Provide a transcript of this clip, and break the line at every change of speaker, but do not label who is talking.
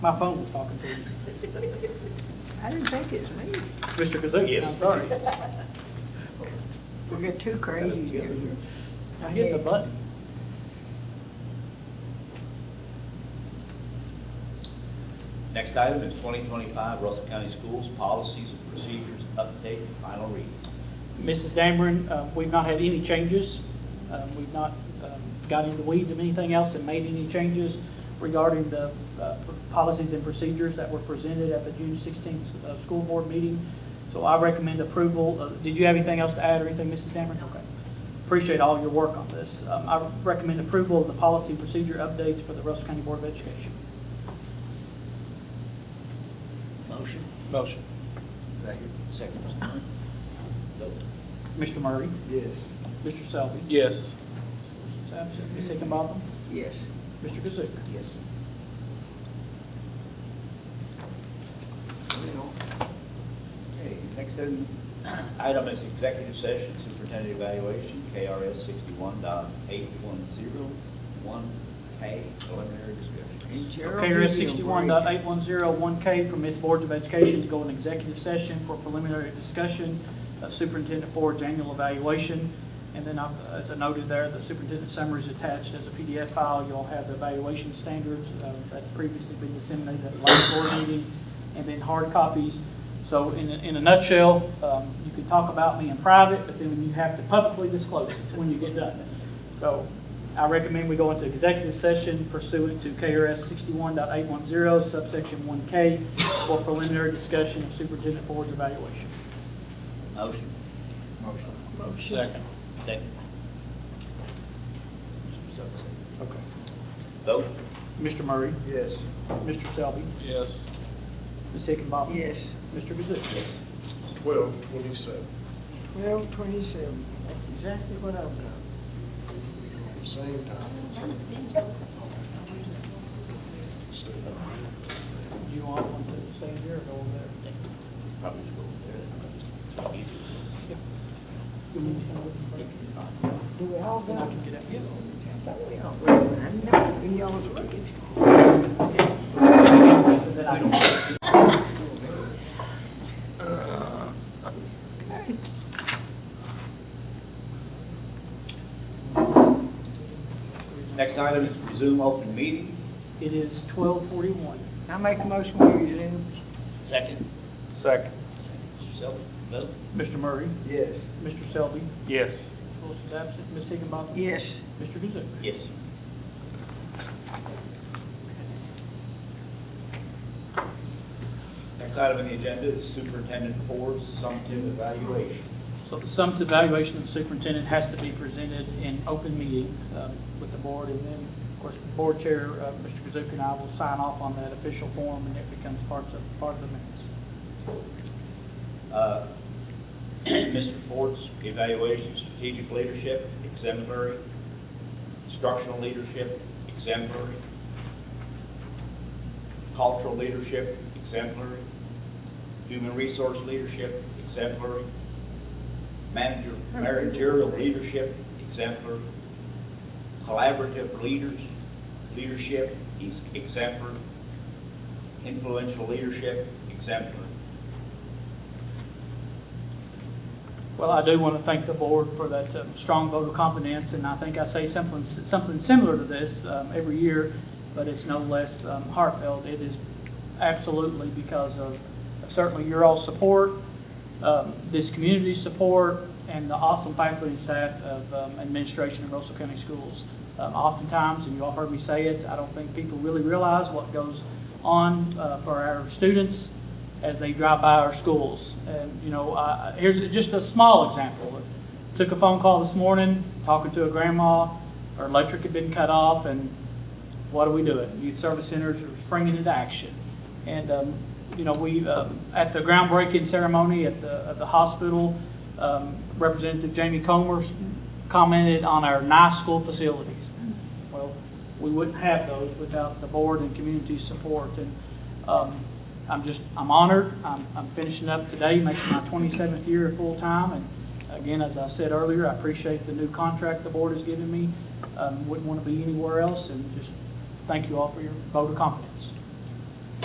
My phone was talking to you.
I didn't think it was me.
Mr. Kazuki, I'm
Yes.
sorry.
We got two crazies here.
I'm hitting the button.
Next item is 2025 Russell County Schools Policies and Procedures Update and Final Reading.
Mrs. Dameron, uh, we've not had any changes. Um, We've not um, got into the weeds of anything else and made any changes regarding the uh, p- policies and procedures that were presented at the June 16th uh, school board meeting. So I recommend approval. of- Did you have anything else to add or anything, Mrs. Dameron? Okay. Appreciate all your work on this. Um, I recommend approval of the policy and procedure updates for the Russell County Board of Education.
Motion.
Motion.
Second. Second. Vote.
Mr. Murray?
Yes.
Mr. Selby?
Yes.
Mr. Absent. Ms. Higginbotham?
Yes.
Mr. Kazook?
Yes. Okay, next item. Item is executive session superintendent evaluation, KRS 61.8101K preliminary
And
discussion.
Gerald,
KRS
give me a
sixty-one
break.
dot eight one zero one K permits boards of education to go in executive session for preliminary discussion of Superintendent Ford's annual evaluation. And then, I've- as I noted there, the superintendent summary is attached as a PDF file. You'll have the evaluation standards uh, that previously been disseminated at the last board meeting, and then hard copies. So in, a- in a nutshell, um, you can talk about me in private, but then you have to publicly disclose it when you get done. So I recommend we go into executive session pursuant to KRS 61.810 subsection one K for preliminary discussion of Superintendent Ford's evaluation.
Motion.
Motion.
Second.
Second. Mr. Sutton, second.
Okay.
Vote.
Mr. Murray,
Yes.
Mr. Selby,
Yes.
Ms. Hickenbottom.
Yes.
Mr. Kazook.
Twelve twenty-seven.
Twelve twenty-seven. That's exactly what I've got.
Same time. Stay up.
Do you want one to stay here or go over there?
Probably should go over there. It's
Yeah. You want me to come with you first?
fine.
Do we all
Then I
got?
can get up.
Thought we all got one. I know, we all look at.
Then I can.
Uh, Okay.
Next item is resume open meeting.
It is twelve forty-one.
I make a motion we resume.
Second.
Second.
Mr. Selby, vote.
Mr. Murray,
Yes.
Mr. Selby,
Yes.
Wilson's absent, Ms. Higginbotham.
Yes.
Mr. Kazook.
Yes. Next item on the agenda is Superintendent Ford's summative evaluation.
So the summative evaluation of the superintendent has to be presented in open meeting um, with the board, and then, of course, board chair, uh, Mr. Kazook and I will sign off on that official form, and it becomes part of, part of the minutes.
Uh, Mr. Ford's evaluation, strategic leadership, exemplary, structural leadership, exemplary, cultural leadership, exemplary, human resource leadership, exemplary, manager, managerial leadership, exemplary, collaborative leaders, leadership, ex- exemplary, influential leadership, exemplary.
Well, I do want to thank the board for that um, strong vote of confidence, and I think I say something, something similar to this um, every year, but it's no less um, heartfelt. It is absolutely because of certainly your all's support, um, this community's support, and the awesome faculty and staff of um, administration in Russell County Schools. Um, Oftentimes, and you all heard me say it, I don't think people really realize what goes on uh, for our students as they drive by our schools. And, you know, uh, here's just a small example. of Took a phone call this morning, talking to a grandma, her electric had been cut off, and what are we doing? Youth Service Centers are springing into action. And, um, you know, we, um, at the groundbreaking ceremony at the, at the hospital, um, Representative Jamie Comer commented on our nice school facilities. Well, we wouldn't have those without the board and community support, and, um, I'm just, I'm honored, I'm, I'm finishing up today, makes my twenty-seventh year full-time, and again, as I said earlier, I appreciate the new contract the board has given me, um, wouldn't want to be anywhere else, and just thank you all for your vote of confidence.